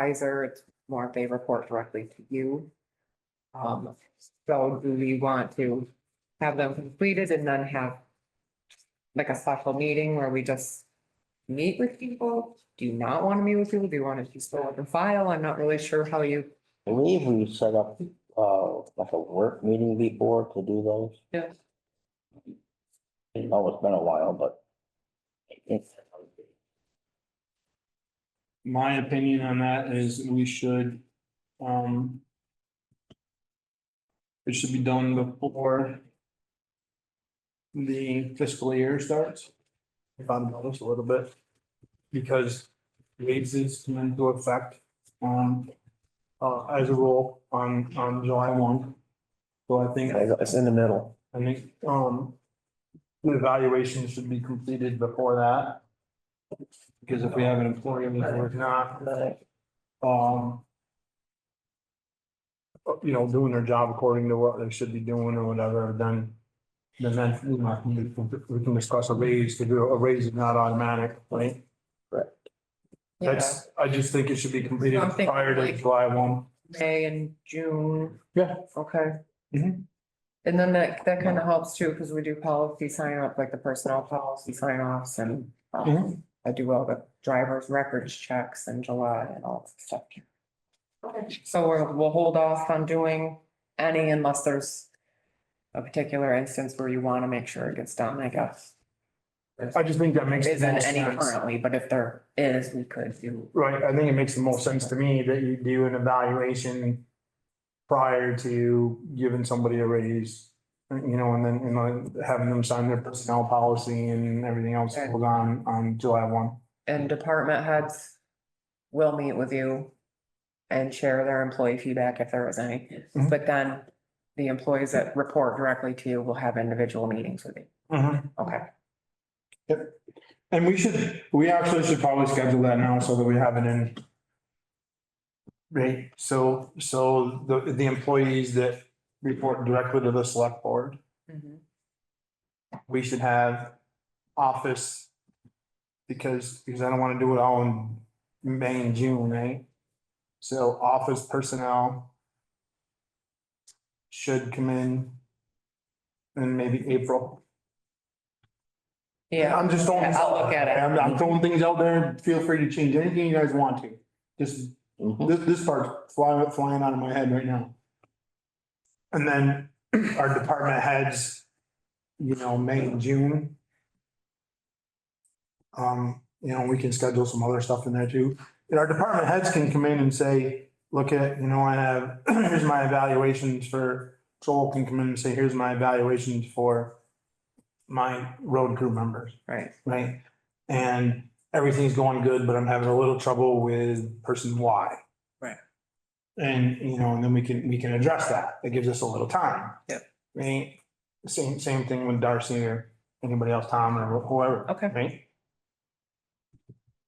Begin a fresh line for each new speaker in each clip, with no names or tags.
advisor, it's more if they report directly to you. Um, so do we want to have them completed and then have like a special meeting where we just meet with people? Do you not want to meet with people? Do you want to just go with the file? I'm not really sure how you.
I believe we set up, uh, like a work meeting before to do those.
Yes.
I know it's been a while, but. I think-
My opinion on that is we should, um. It should be done before. The fiscal year starts. If I'm honest a little bit. Because raises come into effect on, uh, as a rule on, on July one. So I think,
It's in the middle.
I think, um. The evaluation should be completed before that. Because if we have an employee who's not
Mm-hmm.
um. uh, You know, doing their job according to what they should be doing or whatever, then. Then that, you know, we can- we can discuss a raise to do, a raise is not automatic, right? That's, I just think it should be completed
I'm thinking
prior to
like-
July one.
Yeah, May and June.
Yeah.
Okay. Mm-hmm.
Mhm.
And then that, that kind of helps too, because we do policy sign up, like the personnel policy sign offs and um,
Mhm.
I do all the driver's records checks in July and all that stuff. So we're, we'll hold off on doing any unless there's a particular instance where you want to make sure it gets done, I guess.
I just think that makes. the
Isn't
most
any
sense.
currently, but if there is, we could do.
Right, I think it makes the most sense to me that you do an evaluation prior to giving somebody a raise. You know, and then, and like having them sign their personnel policy and everything else that goes on, on July one.
and department heads will meet with you and share their employee feedback if there was any.
Mhm.
But then the employees that report directly to you will have individual meetings with you. Okay.
Mm-hmm. And we should, we actually should probably schedule that now so that we have it in. Right, so, so the, the employees that report directly to the select board, we should have office. Because, because I don't want to do it all in May and June, right? So office personnel. Should come in. In maybe April.
Yeah,
I'm just throwing. this
I'll
out
look at it.
there. I'm, I'm throwing things out there. Feel free to change anything you guys want to. Just
Mhm.
this, this part's flying, flying out of my head right now. And then our department heads, you know, May and June. Um, you know, we can schedule some other stuff in there too. And our department heads can come in and say, look at, you know, I have, here's my evaluations for, Joel can come in and say, here's my evaluations for my road crew members
right.
right? And everything's going good, but I'm having a little trouble with person Y.
Right.
And, you know, and then we can, we can address that. That gives us a little time.
Yep.
Right? Same, same thing with Darcy or anybody else, Tom or whoever,
Okay.
right?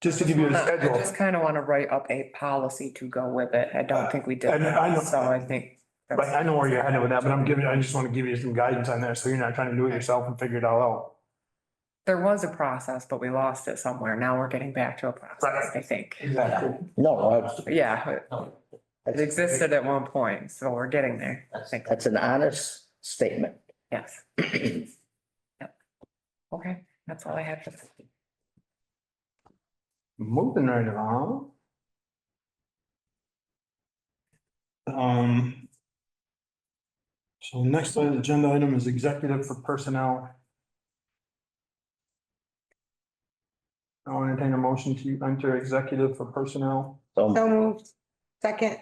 Just to give you the
Uh, I
schedule.
just kind of want to write up a policy to go with it. I don't think we did
And I know-
that, so I think.
But
that's-
I know where you're headed with that, but I'm giving, I just want to give you some guidance on that, so you're not trying to do it yourself and figure it all out.
There was a process, but we lost it somewhere. Now we're getting back to a process,
Right.
I think.
Exactly.
No, that's,
Yeah, it- it
that's,
existed at one point, so we're getting there.
that's- that's an honest statement.
Yes. Yep. Okay, that's all I have. for
Moving right along. Um. So next on the agenda item is executive for personnel. I'll entertain a motion to enter executive for personnel.
So,
So moved. Second.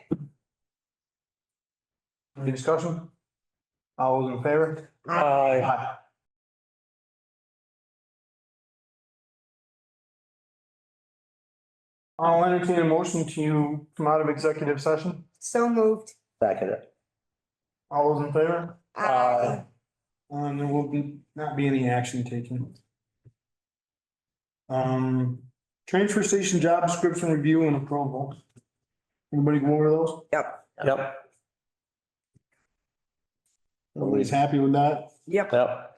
Any discussion? All those in favor? Aye. I'll entertain a motion to come out of executive session.
So moved.
back it up.
All those in favor?
Aye.
Um, there will be, not be any action taken. Um, transfer station job description review and approval. Everybody go over those?
Yep.
Yep.
Everybody's happy with that?
Yep.
Yep,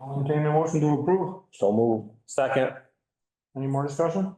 I'll entertain a motion to approve.
so move. Second.
Any more discussion?